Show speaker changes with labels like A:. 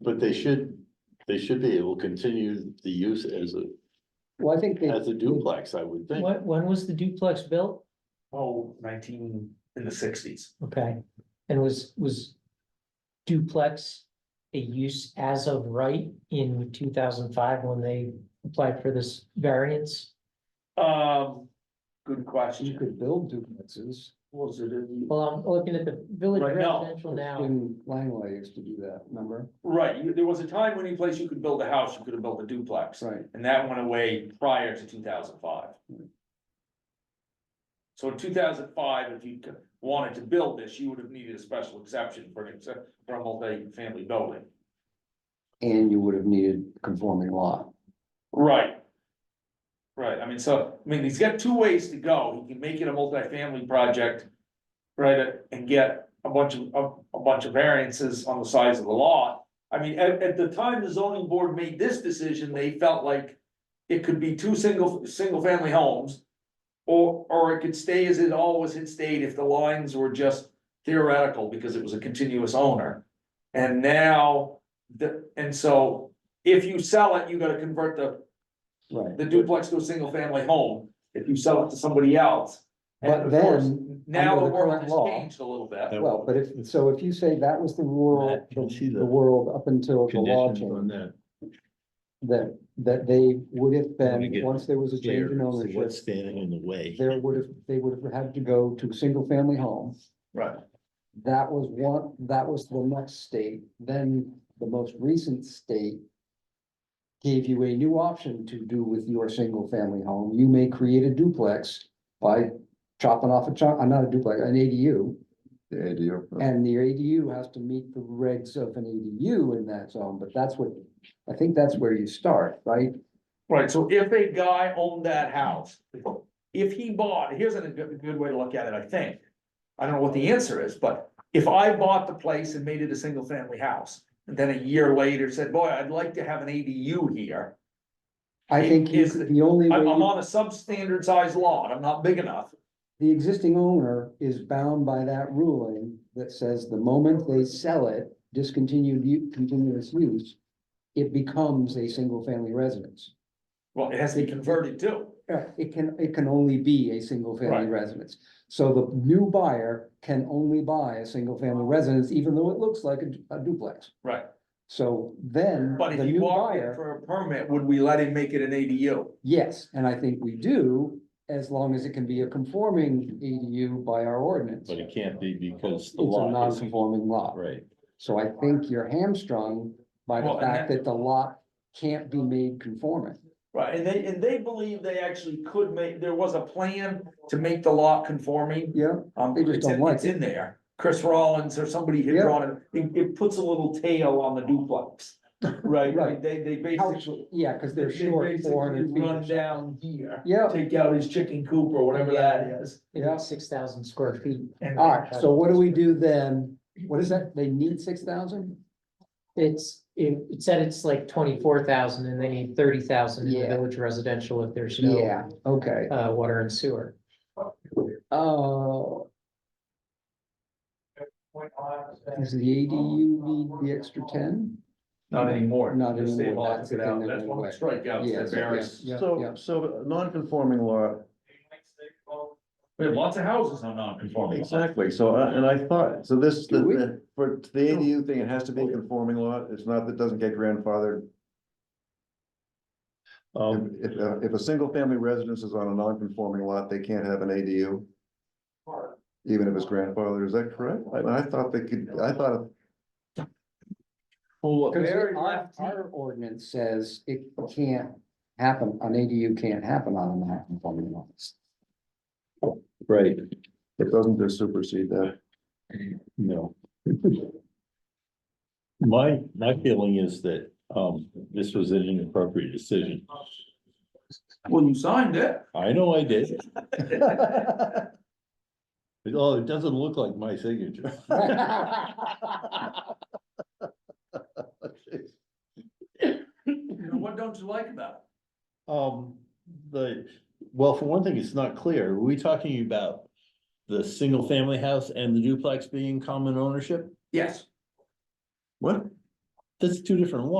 A: But they should, they should be able to continue the use as a,
B: Well, I think they,
A: as a duplex, I would think.
C: When, when was the duplex built?
D: Oh, nineteen in the sixties.
C: Okay, and was, was duplex a use as of right in two thousand five when they applied for this variance?
D: Um, good
B: you
D: question.
B: could build duplexes.
D: Was it in?
C: Well, I'm looking at the village
D: Right now.
C: residential now,
B: And Langway used to do that, remember?
D: Right, you- there was a time when any place you could build a house, you could have built a duplex,
B: Right.
D: and that went away prior to two thousand five. So in two thousand five, if you could- wanted to build this, you would have needed a special exception for an, exce- for a multi-family building.
B: And you would have needed conforming law.
D: Right. Right, I mean, so, I mean, he's got two ways to go, he can make it a multifamily project. Right, and get a bunch of, a, a bunch of variances on the size of the lot. I mean, at, at the time the zoning board made this decision, they felt like. It could be two single, single family homes. Or, or it could stay as it always had stayed if the lines were just theoretical, because it was a continuous owner. And now, the, and so if you sell it, you gotta convert the,
B: Right.
D: the duplex to a single family home, if you sell it to somebody else. and
B: But
D: of course,
B: then,
D: Now
B: under
D: the
B: the
D: world
B: current
D: has
B: law-
D: changed a little bit,
B: Well, but if, so if you say that was the world,
A: Matt, can you see
B: the
A: the
B: world up until the law
A: Conditions on
B: change,
A: that.
B: that, that they would have
A: Let me
B: been,
A: get
B: once there was a
A: Clear,
B: change in
A: so
B: ownership,
A: what's standing in the way?
B: there would have, they would have had to go to single family home.
D: right?
B: That was one, that was the next state, then the most recent state. Gave you a new option to do with your single family home, you may create a duplex by chopping off a chunk, I'm not a duplex, an ADU.
E: The ADU,
B: And the ADU has to meet the regs of an ADU in that zone, but that's what, I think that's where you start, right?
D: Right, so if a guy owned that house, if he bought, here's a good, good way to look at it, I think. I don't know what the answer is, but if I bought the place and made it a single family house, and then a year later said, boy, I'd like to have an ADU here.
B: I think you
D: Is-
B: could- the only way,
D: I'm, I'm
B: you-
D: on a substandard size lot, I'm not big enough,
B: the existing owner is bound by that ruling that says the moment they sell it, discontinued, u- continuous use, it becomes a single family residence.
D: well, it has to be converted too.
B: Yeah, It can, it can only be a single family
D: Right.
B: residence. So the new buyer can only buy a single family residence, even though it looks like a du- a duplex.
D: Right.
B: So then.
D: But if
B: the
D: he
B: new
D: walked in
B: buyer-
D: for a permit, would we let him make it an ADU?
B: Yes, and I think we do, as long as it can be a conforming ADU by our ordinance.
A: But it
B: It's
A: can't be because
B: a
A: the law is,
B: non-conforming lot,
A: right,
B: so I think you're hamstrung by
D: Well,
B: the
D: and
B: fact
D: that-
B: that the lot can't be made conforming.
D: Right, and they, and they believe they actually could make, there was a plan to make the lot conforming.
B: Yeah,
D: Um,
B: They just
D: it's
B: don't
D: in,
B: like
D: it's in there. Chris Rollins or somebody had
B: Yeah.
D: drawn it, it, it puts a little tail on the duplex. Right,
B: Right.
D: they, they basically.
B: Actually, yeah, because they're
D: they
B: short
D: basically
B: four hundred feet. or
D: Run
B: so.
D: down here,
B: Yeah,
D: take out his chicken coop or whatever that is.
B: Yeah.
C: six thousand square feet.
D: and-
B: all right, so what do we do then? What is that? They need six thousand?
C: It's, it, it said it's like twenty-four thousand and they need thirty thousand in the
B: Yeah.
C: village residential if there's no,
B: Yeah, okay,
C: uh, water and sewer.
B: oh. Does the ADU need the extra ten?
D: Not anymore.
B: Not
D: The state
B: anymore,
D: law
B: that's
D: took
B: the
D: it
B: thing
D: out.
B: that
D: That's
B: went
D: one
B: away.
D: of the strikeouts
B: Yeah,
D: that
B: yeah,
D: varies.
B: yeah, yeah.
E: So, so non-conforming law,
D: We have lots of houses on non-conforming.
E: exactly, so, uh, and I thought, so this, the-
B: Do we?
E: the, for the ADU thing, it has to be a conforming law, it's not, that doesn't get grandfathered.
A: um,
E: If, if, uh, if a single family residence is on a non-conforming lot, they can't have an ADU. Even if it's grandfathered, is that correct? I, I thought they could, I thought.
A: well,
B: Because
D: Very
B: our,
D: lefty.
B: our ordinance says it can't happen, an ADU can't happen on a non-conforming lot.
A: right,
E: It doesn't just supersede that.
A: no. My, my feeling is that, um, this was an inappropriate decision.
D: Well, you signed it.
A: I know I did. But, Oh, it doesn't look like my signature.
D: What don't you like about
A: Um, the, well, for one thing, it's not clear. Are we talking about the single family house and the duplex being common ownership?
D: it? Yes.
E: What?
A: that's two different ones.